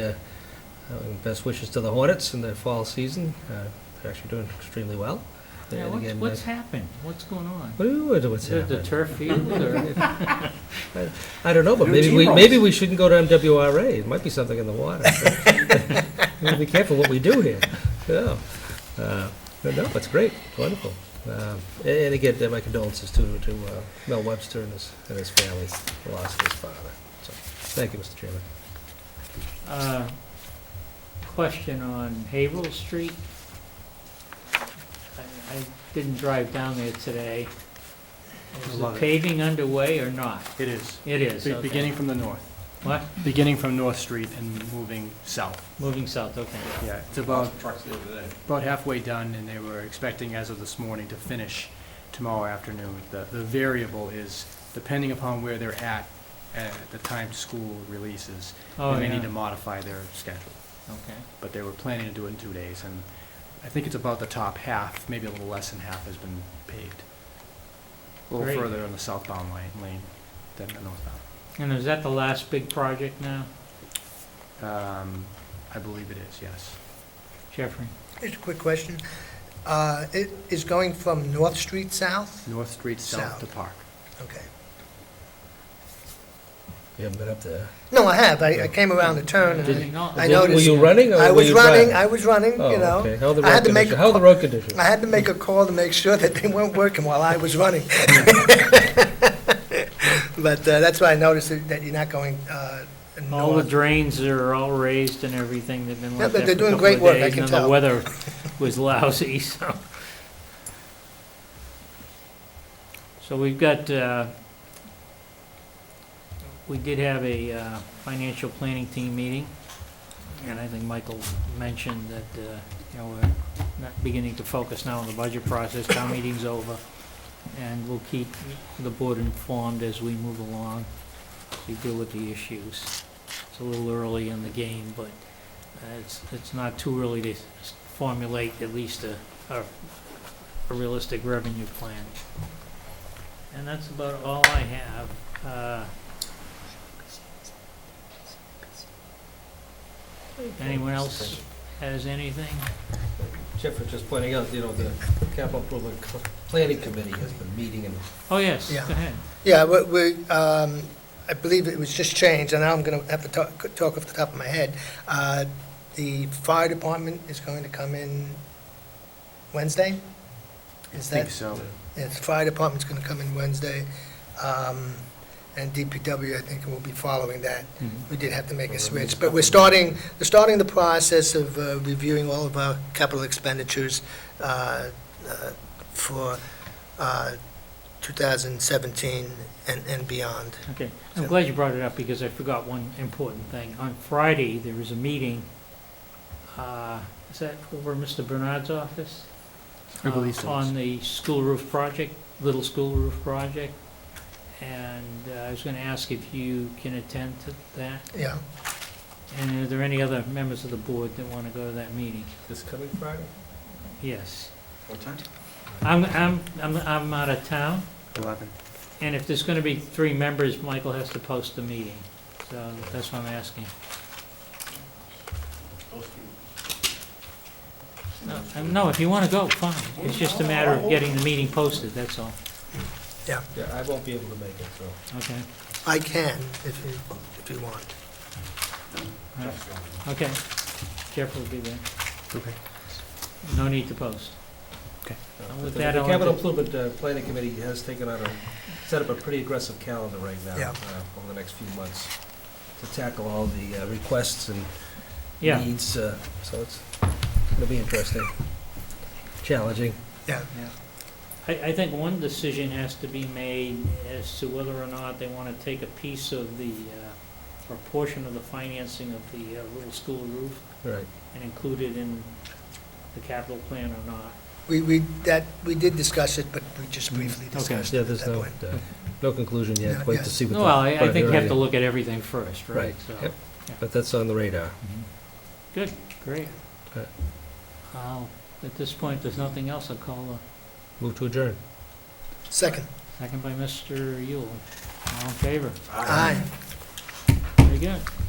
Uh, uh, Best wishes to the Hornets in their fall season. Uh, They're actually doing extremely well. Yeah, And what's, again, what's uh, happened? What's going on? What do you, what- what's Is it the happening? turf field or? I don't know, but New maybe we, team maybe we shouldn't go to MWRA. It might be something in the water. We gotta Be careful what we do here. Yeah. Uh, but No, it's great, It's wonderful. Um, And and again, uh, my condolences to, to uh, Mel Webster and his, and his family, the loss of his father. So, Thank you, Mr. Chairman. Uh, Question on Haverhill Street. I I didn't drive down there today. Is the Love it. paving underway or not? It is. It is, Be- okay. Beginning from the north, What? beginning from North Street and moving south. Moving south, okay. Yeah, it's about, about halfway done, and they were expecting as of this morning to finish tomorrow afternoon. The, the variable is depending upon where they're at, uh, at the time school releases, Oh, they may yeah, need to modify their schedule. okay. But they were planning to do it in two days, and I think it's about the top half, maybe a little less than half has been paved. A Great. little further on the southbound lane, lane than the northbound. And is that the last big project now, Um, I believe it is, yes. Jeffrey? Just a quick question. Uh, It is going from North Street south? North Street, south to Park. Okay. You haven't been up there. No, I have. I I came around the turn and I- No, I Were you- Were noticed- you running or I were was you running, driving? I was running, you Oh, know. okay. How are the I had road to make conditions? a How are the road conditions? I had to make a call to make sure that they weren't working while I was running. But uh, that's why I noticed that that you're not going uh, All the north. drains are all raised and everything, they've been Yeah, left but there for a they're doing couple great of work, I days, can and the tell. weather was lousy, so. So we've got, uh, we did have a uh, financial planning team meeting, and I think Michael mentioned that, uh, you know, we're not beginning to focus now on the budget process, town meeting's over, and we'll keep the board informed as we move along, we deal with the issues. It's a little early in the game, but uh, it's, it's not too early to s- formulate at least a, a a realistic revenue plan. And that's about all I have. Uh, Anyone else has anything? Jeff was just pointing out, you know, the capital improvement Co- planning committee has been meeting and Oh, yes, go Yeah. ahead. Yeah, we- we, um, I believe it was just changed, and now I'm going to have to talk talk off the top of my head. Uh, The fire department is going to come in Wednesday? I Is think that, so. yes, fire department's going to come in Wednesday, um, and DPW, I think, will be following that. We did have to make a switch, but we're starting, we're starting the process of uh, reviewing all of our capital expenditures uh, uh, for uh, 2017 and and beyond. Okay, I'm glad you brought it up because I forgot one important thing. On Friday, there was a meeting, uh, is that over at Mr. Bernard's office? I believe Uh, so. On the school roof project, little school roof project. And uh, I was going to ask if you can attend to that. Yeah. And are there any other members of the board that want to go to that meeting? this coming Friday? Yes. What time? I'm, I'm, I'm, I'm out of town. Eleven. And if there's going to be three members, Michael has to post the meeting. So that's what I'm asking. No, um, No, if you want to go, fine. It's just a matter of getting the meeting posted, that's all. Yeah, I won't be able to make it, so. Okay, I can, if you, if you want. okay. Jeff will be there. Okay. No need to post. uh, And but with The that, the I'll capital have improvement uh, planning committee has taken on a, set up a pretty aggressive calendar right now. Yeah. uh, Over the next few months to tackle all the uh, requests and Yeah, needs, uh, so it's gonna be interesting, challenging. I, I think one decision has to be made as to whether or not they want to take a piece of the, uh, or portion of the financing of the uh, little school roof Right. and include it in the capital plan or not. We, we, that, we did discuss it, but we just briefly Mm, discussed it Yeah, at there's that no, point. uh, no conclusion yet, Yeah, wait to yes. see what. the Well, I, I think you have priority- to look at everything first, right? Right, So- yep. But that's on the radar. Good, great. Okay. I'll- At this point, there's nothing else, I'll call Move to adjourn. Second. a second by Mr. Yule. All in favor? Aye. Very good.